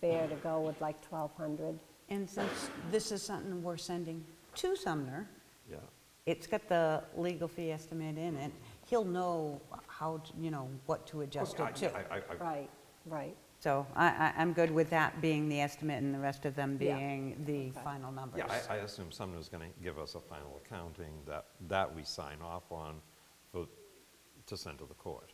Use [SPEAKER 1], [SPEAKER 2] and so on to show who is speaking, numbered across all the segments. [SPEAKER 1] fair to go with like 1,200.
[SPEAKER 2] And since this is something we're sending to Sumner,
[SPEAKER 3] Yeah,
[SPEAKER 2] it's got the legal fee estimate in it, he'll know how, to- you know, what to adjust it to.
[SPEAKER 3] I- I- I-
[SPEAKER 1] Right, right.
[SPEAKER 2] So I, I, I'm good with that being the estimate and the rest of them
[SPEAKER 1] Yeah.
[SPEAKER 2] being the
[SPEAKER 1] Okay.
[SPEAKER 2] final numbers.
[SPEAKER 3] yeah, I- I assume Sumner's going to give us a final accounting that, that we sign off on for, to send to the court.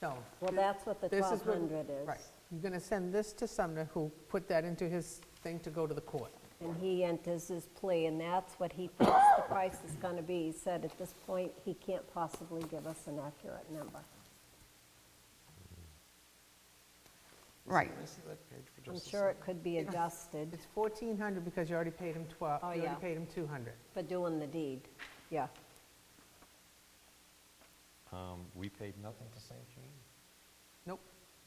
[SPEAKER 4] No.
[SPEAKER 1] Well, that's what the
[SPEAKER 4] This is what-
[SPEAKER 1] 1,200 is.
[SPEAKER 4] Right. You're going to send this to Sumner, who put that into his thing to go to the court.
[SPEAKER 1] And he enters his plea, and that's what he thinks the price is going to be. He said at this point, he can't possibly give us an accurate number.
[SPEAKER 2] Right.
[SPEAKER 1] I'm sure it could be adjusted
[SPEAKER 4] It's 1,400 because you already paid him 12,
[SPEAKER 1] Oh,
[SPEAKER 4] you
[SPEAKER 1] yeah.
[SPEAKER 4] already paid him 200.
[SPEAKER 1] for doing the deed. Yeah.
[SPEAKER 3] Um, We paid nothing to St. Jean?
[SPEAKER 4] Nope.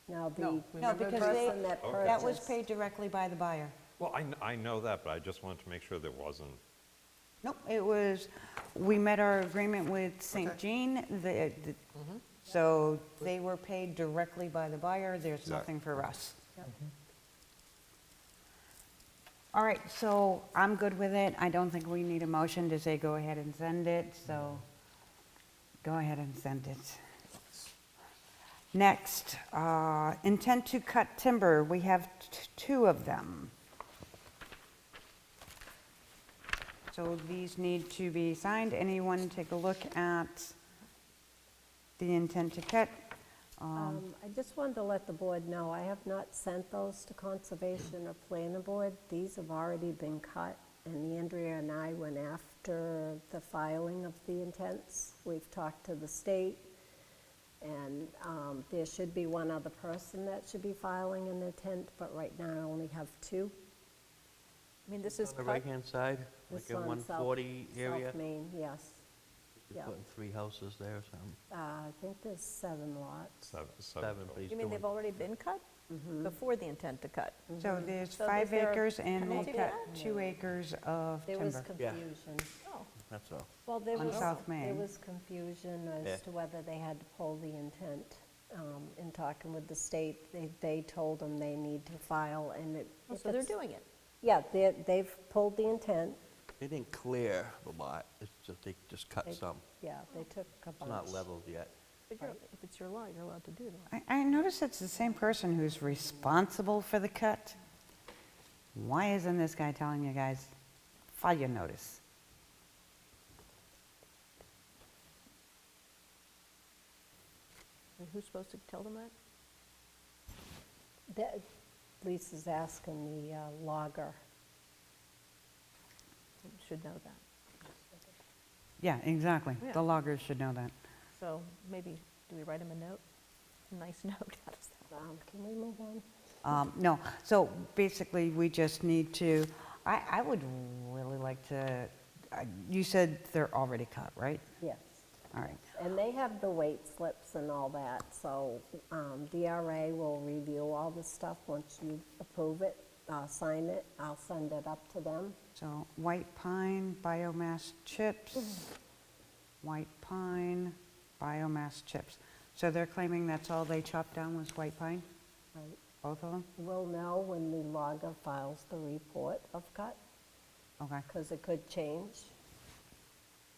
[SPEAKER 1] Now, the
[SPEAKER 4] No,
[SPEAKER 2] No,
[SPEAKER 4] remember
[SPEAKER 2] because
[SPEAKER 4] the-
[SPEAKER 2] they,
[SPEAKER 1] person that purchased.
[SPEAKER 2] that was paid directly by the buyer.
[SPEAKER 3] Well, I, kn- I know that, but I just wanted to make sure there wasn't,
[SPEAKER 2] Nope, it was, we met our agreement with St. Jean, the, the- so they were paid directly by the buyer, there's
[SPEAKER 3] Exact-
[SPEAKER 2] nothing for us. All right, so I'm good with it, I don't think we need a motion to say go ahead and send it, so go ahead and send it. Next, uh, intent to cut timber, we have t- two of them. So these need to be signed. Anyone take a look at the intent to cut? Um,
[SPEAKER 1] Um, I just wanted to let the board know, I have not sent those to Conservation or Planning Board. These have already been cut, and Andrea and I went after the filing of the intents. We've talked to the state, and um, there should be one other person that should be filing an intent, but right now I only have two.
[SPEAKER 5] I mean, this is
[SPEAKER 6] On the
[SPEAKER 5] part,
[SPEAKER 6] right-hand side, like
[SPEAKER 1] This
[SPEAKER 6] in
[SPEAKER 1] on South-
[SPEAKER 6] 140 area?
[SPEAKER 1] South Main, yes.
[SPEAKER 6] You're
[SPEAKER 1] yeah.
[SPEAKER 6] putting three houses there or something,
[SPEAKER 1] Uh, I think there's seven lots.
[SPEAKER 3] seven,
[SPEAKER 6] seven,
[SPEAKER 3] seven.
[SPEAKER 6] but he's
[SPEAKER 5] you mean
[SPEAKER 6] doing
[SPEAKER 5] they've already been cut?
[SPEAKER 1] Mm-hmm.
[SPEAKER 5] Before the intent to cut?
[SPEAKER 1] Oh,
[SPEAKER 2] So there's
[SPEAKER 5] Mm-hmm. So is
[SPEAKER 2] five
[SPEAKER 5] there a
[SPEAKER 2] acres and they
[SPEAKER 5] penalty for
[SPEAKER 2] cut
[SPEAKER 5] that?
[SPEAKER 2] two acres of
[SPEAKER 1] There was
[SPEAKER 2] timber.
[SPEAKER 6] Yeah.
[SPEAKER 1] confusion.
[SPEAKER 5] Oh,
[SPEAKER 6] That's all.
[SPEAKER 1] Well, there
[SPEAKER 2] On
[SPEAKER 1] was,
[SPEAKER 2] South
[SPEAKER 1] there
[SPEAKER 2] Main.
[SPEAKER 1] was confusion
[SPEAKER 6] Yeah.
[SPEAKER 1] as to whether they had to pull the intent. um, In talking with the state, they, they told them they need to file and it.
[SPEAKER 5] oh,
[SPEAKER 1] if
[SPEAKER 5] so they're
[SPEAKER 1] it's-
[SPEAKER 5] doing it.
[SPEAKER 1] Yeah, they, they've pulled the intent.
[SPEAKER 6] They didn't clear the lot, it's just, they just cut
[SPEAKER 1] They-
[SPEAKER 6] some.
[SPEAKER 1] Yeah, they took a
[SPEAKER 6] It's
[SPEAKER 1] bunch.
[SPEAKER 6] not leveled yet.
[SPEAKER 5] But you're, if it's your lot, you're allowed to do that.
[SPEAKER 2] I, I notice it's the same person who's responsible for the cut. Why isn't this guy telling you guys, file your notice?
[SPEAKER 5] And who's supposed to tell them that?
[SPEAKER 1] That- Lisa's asking the uh, logger.
[SPEAKER 5] You Should know that.
[SPEAKER 2] Yeah, exactly.
[SPEAKER 5] Yeah.
[SPEAKER 2] The loggers should know that.
[SPEAKER 5] So maybe, do we write them a note? A nice note, how does that?
[SPEAKER 1] Um, Can we move on?
[SPEAKER 2] Um, No, so basically, we just need to, I, I would really like to, I- you said they're already cut, right?
[SPEAKER 1] Yes.
[SPEAKER 2] All right.
[SPEAKER 1] And they have the weight slips and all that, so um, DRA will review all this stuff once you approve it, uh, sign it. I'll send it up to them.
[SPEAKER 2] So white pine, biomass chips, white pine, biomass chips. So they're claiming that's all they chopped down was white pine,
[SPEAKER 1] Right.
[SPEAKER 2] both of them?
[SPEAKER 1] We'll know when the logger files the report of cut,
[SPEAKER 2] Okay.
[SPEAKER 1] because it could change.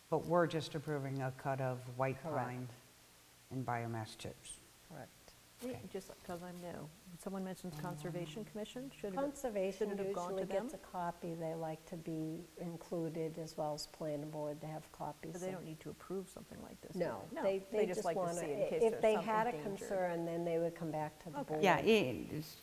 [SPEAKER 2] But we're just approving a cut of white
[SPEAKER 1] Correct.
[SPEAKER 2] pine and biomass chips.
[SPEAKER 5] Correct. Just because I'm new. When Someone mentions Conservation Commission, should it?
[SPEAKER 1] Mm. Conservation
[SPEAKER 5] shouldn't have gone
[SPEAKER 1] usually
[SPEAKER 5] to them?
[SPEAKER 1] gets a copy, they like to be included, as well as planning board, they have copies.
[SPEAKER 5] But they
[SPEAKER 1] of-
[SPEAKER 5] don't need to approve something like this. do
[SPEAKER 1] No, they,
[SPEAKER 5] No,
[SPEAKER 1] they just
[SPEAKER 5] like
[SPEAKER 1] want to,
[SPEAKER 5] to see in case
[SPEAKER 1] if
[SPEAKER 5] there's
[SPEAKER 1] they had a
[SPEAKER 5] something dangerous.
[SPEAKER 1] concern, then they would come back to the board.
[SPEAKER 2] Yeah, i- it's-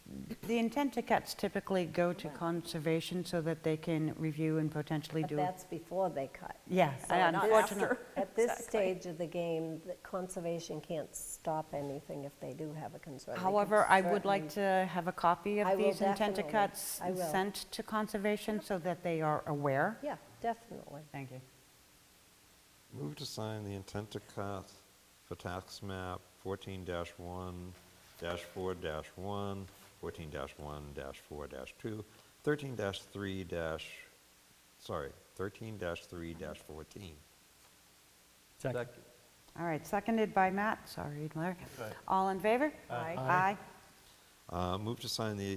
[SPEAKER 2] the intent to cuts typically go to conservation so that they can review and potentially
[SPEAKER 1] But
[SPEAKER 2] do.
[SPEAKER 1] that's before they cut.
[SPEAKER 2] Yeah,
[SPEAKER 5] So not
[SPEAKER 2] unfortunately.
[SPEAKER 5] after.
[SPEAKER 1] At this
[SPEAKER 5] Exactly.
[SPEAKER 1] stage of the game, the conservation can't stop anything if they do have a concern. They can
[SPEAKER 2] However, I would
[SPEAKER 1] certainly-
[SPEAKER 2] like to have a copy
[SPEAKER 1] I
[SPEAKER 2] of
[SPEAKER 1] will
[SPEAKER 2] these intent to
[SPEAKER 1] definitely.
[SPEAKER 2] cuts
[SPEAKER 1] I will.
[SPEAKER 2] sent to conservation so that they are aware.
[SPEAKER 1] Yeah, definitely.
[SPEAKER 2] Thank you.
[SPEAKER 3] Move to sign the intent to cut for tax map 14-1-4-1, 14-1-4-2, 13-3- dash- sorry, 13-3-14.
[SPEAKER 6] Second.
[SPEAKER 2] All right, seconded by Matt, sorry, Larry. All in favor? Aye. Aye.
[SPEAKER 3] Uh, Move to sign the